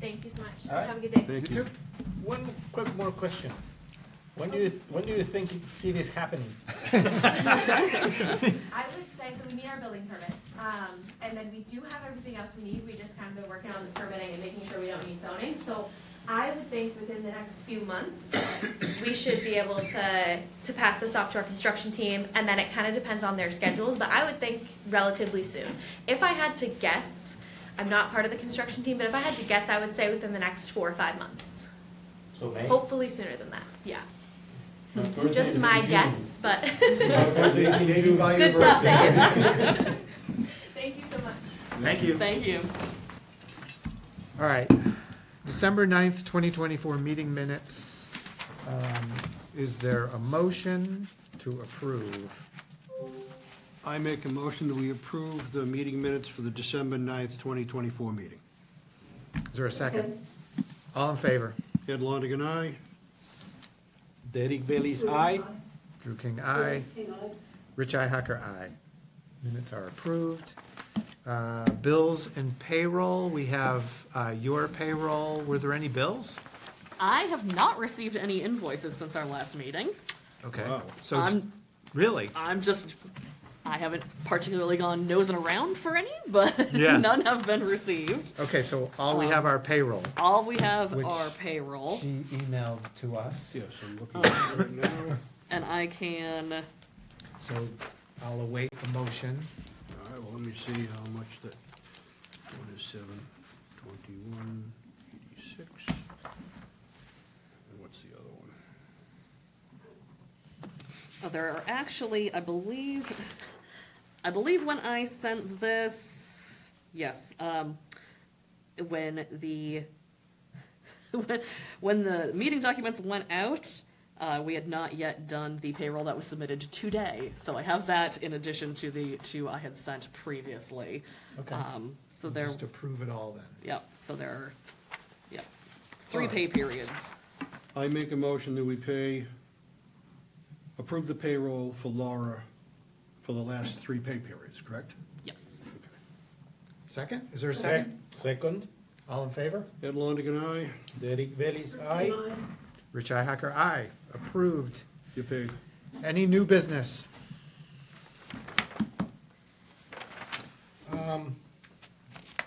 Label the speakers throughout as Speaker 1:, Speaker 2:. Speaker 1: Thank you so much.
Speaker 2: All right.
Speaker 1: Have a good day.
Speaker 3: Thank
Speaker 2: You too. One quick more question. When do you, when do you think you see this happening?
Speaker 1: I would say, so we need our building permit, um, and then we do have everything else we need, we just kind of been working on the permitting and making sure we don't need zoning, so I would think within the next few months, we should be able to, to pass this off to our construction team, and then it kind of depends on their schedules, but I would think relatively soon. If I had to guess, I'm not part of the construction team, but if I had to guess, I would say within the next four or five months,
Speaker 2: So May?
Speaker 1: hopefully sooner than that, yeah.
Speaker 4: My birthday is
Speaker 1: Just
Speaker 4: in
Speaker 1: my
Speaker 4: June.
Speaker 1: guess, but.
Speaker 4: My birthday is in June.
Speaker 1: Good luck. Thank you so much.
Speaker 2: Thank you.
Speaker 5: Thank you.
Speaker 6: All right, December 9th, twenty twenty-four meeting minutes. Um, Is there a motion to approve?
Speaker 3: I make a motion that we approve the meeting minutes for the December 9th, 2024 meeting.
Speaker 6: Is there a second? All in favor?
Speaker 3: Ed Longigan, aye.
Speaker 2: Derek Bailey's aye.
Speaker 6: Drew King, aye. Rich Ihacker, aye. Minutes are approved. Uh, Bills and payroll, we have uh, your payroll. Were there any bills?
Speaker 5: I have not received any invoices since our last meeting.
Speaker 6: Okay,
Speaker 3: Wow.
Speaker 6: so, it's-
Speaker 5: I'm-
Speaker 6: really?
Speaker 5: I'm just, I haven't particularly gone nosing around for any, but
Speaker 6: Yeah.
Speaker 5: none have been received.
Speaker 6: Okay, so all we have are payroll.
Speaker 5: All we have
Speaker 6: Which-
Speaker 5: are payroll,
Speaker 6: She emailed to us.
Speaker 3: Yes, I'm looking at it right now.
Speaker 5: and I can,
Speaker 6: So I'll await a motion.
Speaker 3: All right, well, let me see how much that, one is seven, twenty-one, eighty-six. And what's the other one?
Speaker 5: oh, there are actually, I believe, I believe when I sent this, yes, um, when the, when- when the meeting documents went out, uh, we had not yet done the payroll that was submitted today. So I have that in addition to the two I had sent previously.
Speaker 6: Okay.
Speaker 5: Um, So there,
Speaker 6: Just to prove it all then.
Speaker 5: yep, so there are, yep, three
Speaker 3: Alright.
Speaker 5: pay periods.
Speaker 3: I make a motion that we pay, approve the payroll for Laura for the last three pay periods, correct?
Speaker 5: Yes.
Speaker 6: Second? Is there a second?
Speaker 2: Second,
Speaker 6: All in favor?
Speaker 3: Ed Longigan, aye.
Speaker 2: Derek Bailey's aye.
Speaker 6: Rich Ihacker, aye. Approved.
Speaker 3: You paid.
Speaker 6: Any new business?
Speaker 2: Um,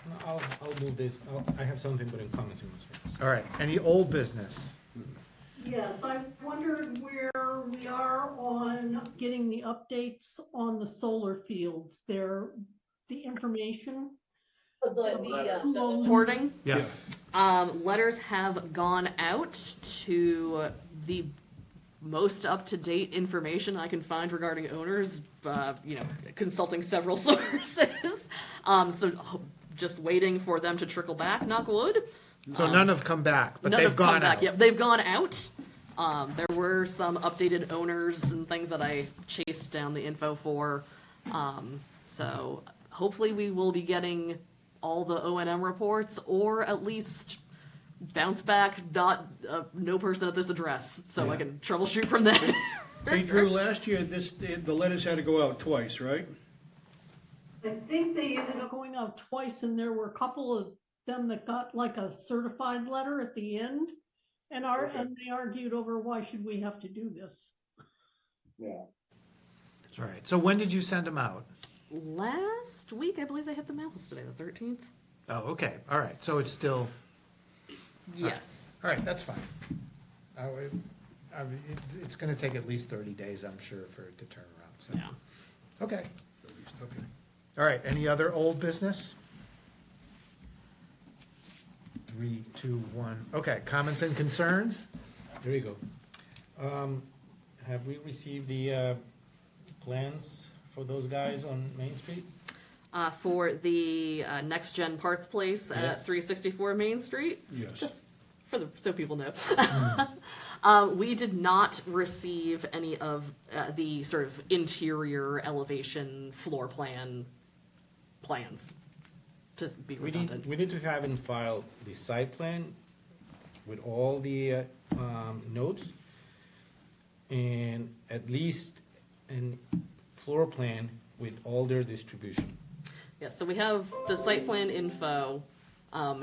Speaker 2: no, I'll, I'll do this. I'll, I have something, but in comments in response.
Speaker 6: All right, any old business?
Speaker 7: Yes, I wondered where we are on getting the updates on the solar fields. There, the information. Well,
Speaker 5: Reporting?
Speaker 6: Yeah,
Speaker 5: Um, letters have gone out to the most up-to-date information I can find regarding owners, uh, you know, consulting several sources. Um, so ho- just waiting for them to trickle back, knock wood.
Speaker 6: so none have come back, but
Speaker 5: None
Speaker 6: they've
Speaker 5: have come
Speaker 6: gone
Speaker 5: back
Speaker 6: out.
Speaker 5: yet. They've gone out. Um, there were some updated owners and things that I chased down the info for. Um, so hopefully we will be getting all the O and M reports or at least bounce back, not, uh, no person at this address, so I can troubleshoot from there.
Speaker 3: Hey Drew, last year, this, the letters had to go out twice, right?
Speaker 7: I think they ended up going out twice and there were a couple of them that got like a certified letter at the end. And are, and they argued over why should we have to do this?
Speaker 6: All right, so when did you send them out?
Speaker 5: Last week, I believe they hit the mail. It's today, the thirteenth.
Speaker 6: Oh, okay, all right, so it's still,
Speaker 5: Yes.
Speaker 6: all right, that's fine. I would- I mean, it- It's gonna take at least thirty days, I'm sure, for it to turn around, so.
Speaker 5: Yeah.
Speaker 6: Okay,
Speaker 3: Okay.
Speaker 6: all right, any other old business? Three, two, one, okay, comments and concerns?
Speaker 2: There you go. Um, have we received the, uh, plans for those guys on Main Street?
Speaker 5: Uh, for the, uh, Next Gen Parts Place at
Speaker 2: Yes.
Speaker 5: three sixty-four Main Street.
Speaker 3: Yes.
Speaker 5: just for the so people know. um, we did not receive any of uh, the sort of interior elevation floor plan plans. Just be
Speaker 2: We need,
Speaker 5: redundant.
Speaker 2: we need to have in file the site plan with all the uh, um, notes and at least an floor plan with all their distribution.
Speaker 5: yes, so we have the site plan info. Um,